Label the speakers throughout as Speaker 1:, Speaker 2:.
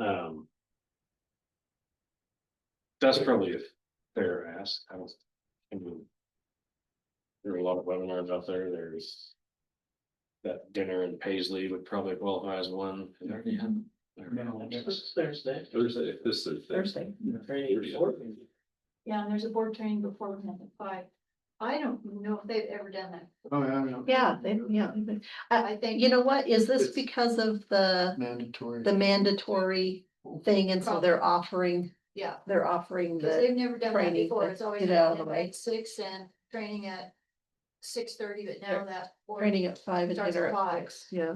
Speaker 1: Um. Desperately, if they're asked, I don't. I mean, There are a lot of webinars out there, there's. That dinner in Paisley would probably qualify as one. Is there any? There are no others.
Speaker 2: Thursday.
Speaker 3: Thursday, this Thursday.
Speaker 2: Thursday.
Speaker 3: Yeah.
Speaker 2: Friday, fourth.
Speaker 4: Yeah, and there's a board training before we have the five. I don't know if they've ever done that.
Speaker 5: Oh, yeah, I know.
Speaker 6: Yeah, they, yeah.
Speaker 4: I think.
Speaker 6: You know what? Is this
Speaker 5: It's-
Speaker 6: because of the,
Speaker 5: Mandatory.
Speaker 6: the mandatory thing? And so they're offering,
Speaker 4: Yeah,
Speaker 6: they're offering
Speaker 4: because
Speaker 6: the,
Speaker 4: they've never done that
Speaker 6: training,
Speaker 4: before.
Speaker 6: but
Speaker 4: It's always
Speaker 6: get it out of
Speaker 4: been
Speaker 6: the way.
Speaker 4: at six and training at six thirty, but now that. board-
Speaker 6: training at five and
Speaker 4: Starts
Speaker 6: dinner
Speaker 4: at
Speaker 6: at
Speaker 4: five.
Speaker 6: six. Yeah.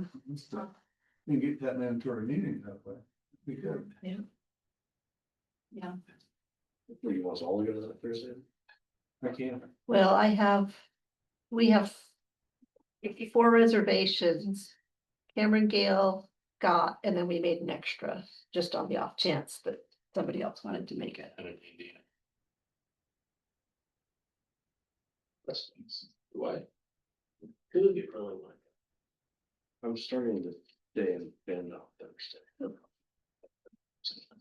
Speaker 5: You get that mandatory meeting that way. We could.
Speaker 4: Yeah,
Speaker 1: Were you want us all to go to that Thursday?
Speaker 5: I can't.
Speaker 6: Well, I have, we have fifty-four reservations. Cameron Gale got, and then we made an extra just on the off chance that somebody else wanted to make it.
Speaker 1: I don't need to.
Speaker 3: Why?
Speaker 2: Could be really one.
Speaker 1: I'm starting to day and bend on Thursday.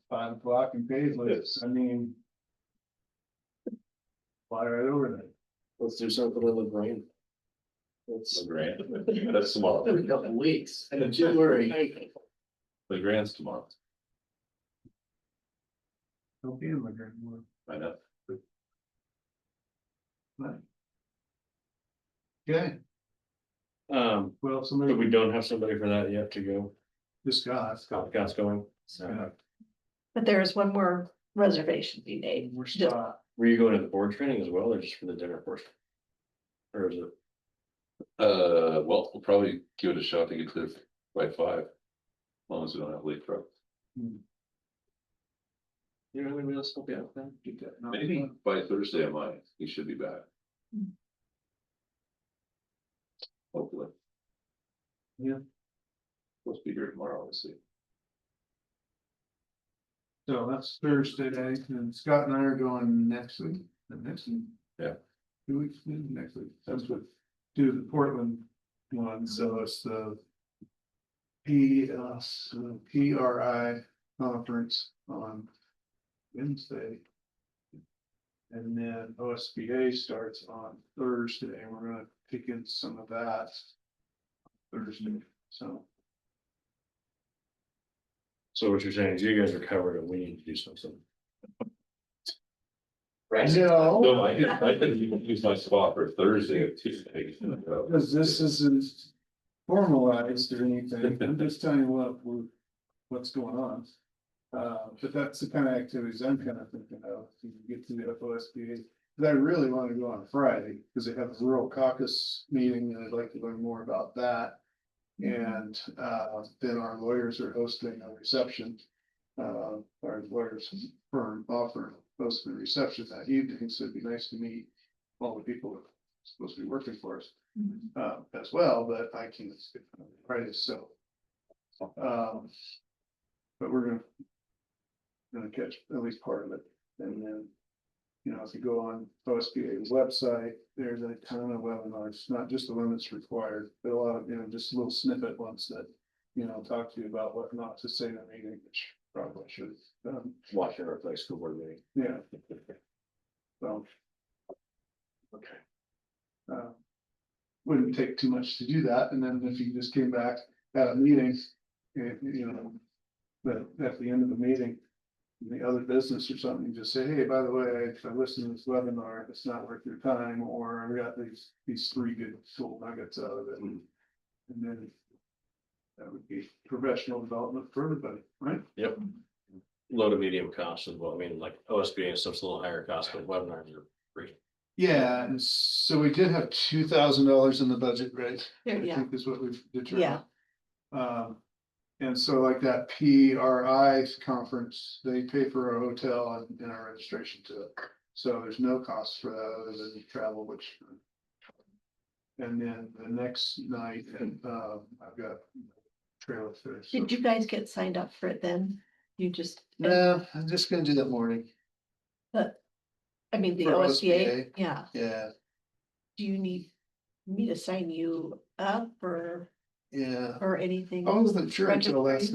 Speaker 5: Five o'clock in Paisley,
Speaker 1: Yes.
Speaker 5: I mean. Fly right over there.
Speaker 1: Let's do something in the brain. Let's.
Speaker 3: Legrand, that's tomorrow,
Speaker 2: Every couple of weeks, and in January.
Speaker 3: Legrand's tomorrow,
Speaker 5: Don't be in my grand one.
Speaker 3: I know.
Speaker 5: Okay,
Speaker 1: Um,
Speaker 5: well,
Speaker 1: but we
Speaker 5: somebody,
Speaker 1: don't have somebody for that yet to go.
Speaker 5: this guy, Scott.
Speaker 1: Scott's going. Uh,
Speaker 5: Scott,
Speaker 6: But there is one more reservation we made.
Speaker 5: We're Scott.
Speaker 1: Were you going to the board training as well or just for the dinner portion? Or is it?
Speaker 3: Uh, well, we'll probably give it a shot to get clear by five. As long as we don't have late truck.
Speaker 1: You know, anybody else help you out then?
Speaker 5: Get that knocked
Speaker 3: Maybe
Speaker 5: out.
Speaker 3: by Thursday I might, he should be back. Hopefully.
Speaker 5: Yeah.
Speaker 3: Supposed to be here tomorrow, let's see.
Speaker 5: So that's Thursday, and Scott and I are going next week, the next week.
Speaker 3: Yeah.
Speaker 5: Two weeks, next week.
Speaker 3: That's good.
Speaker 5: do the Portland one, so it's the. P S, uh, P R I conference on Wednesday. And then O S B A starts on Thursday, and we're gonna pick in some of that. Thursday, so
Speaker 1: So what you're saying is you guys are covered and we need to do something.
Speaker 2: Right.
Speaker 5: Oh.
Speaker 3: No, I didn't, I didn't even use my spot for Thursday or Tuesday. so-
Speaker 5: because this isn't formalized or anything, I'm just telling you what we're, what's going on. Uh, but that's the kind of activities I'm kind of thinking of, if you get to the FOSBA. But I really want to go on Friday, because they have a rural caucus meeting, and I'd like to learn more about that. And, uh, then our lawyers are hosting a reception. Uh, our lawyers firm offer hosting a reception that evening, so it'd be nice to meet all the people who are supposed to be working for us uh, as well, but I can't skip on Friday, so. Um. But we're gonna. Gonna catch at least part of it, and then. You know, if you go on OSBA's website, there's a ton of webinars, not just the one that's required, but a lot of, you know, just little snippet ones that. You know, talk to you about what not to say in a meeting, which probably should, um, have done.
Speaker 1: Watching our place school board meeting.
Speaker 5: yeah. So. Okay. Uh, Wouldn't take too much to do that, and then if you just came back at a meeting, eh, you know. But at the end of the meeting, the other business or something, you just say, hey, by the way, I- I listened to this webinar, it's not worth your time, or I got these, these three good tool nuggets out of it. And then. That would be professional development for everybody, right?
Speaker 1: Yep. Low to medium cost as well. I mean, like OSBA and stuff's a little higher cost, but webinars are free.
Speaker 5: Yeah, and so we did have two thousand dollars in the budget, right? I
Speaker 6: Yeah,
Speaker 5: think is what we've determined. Um, and so like that P R I conference, they pay for our hotel and- and our registration to it. So there's no cost for that other than the travel, which. And then the next night, um, I've got trailer fish. so-
Speaker 6: Did you guys get signed up for it then? You just.
Speaker 5: No, I'm just gonna do that morning,
Speaker 6: I mean, the
Speaker 5: For
Speaker 6: OSBA,
Speaker 5: OSBA.
Speaker 6: yeah,
Speaker 5: yeah,
Speaker 6: do you need me to sign you up or,
Speaker 5: yeah.
Speaker 6: or anything?
Speaker 5: Oh, I wasn't sure until last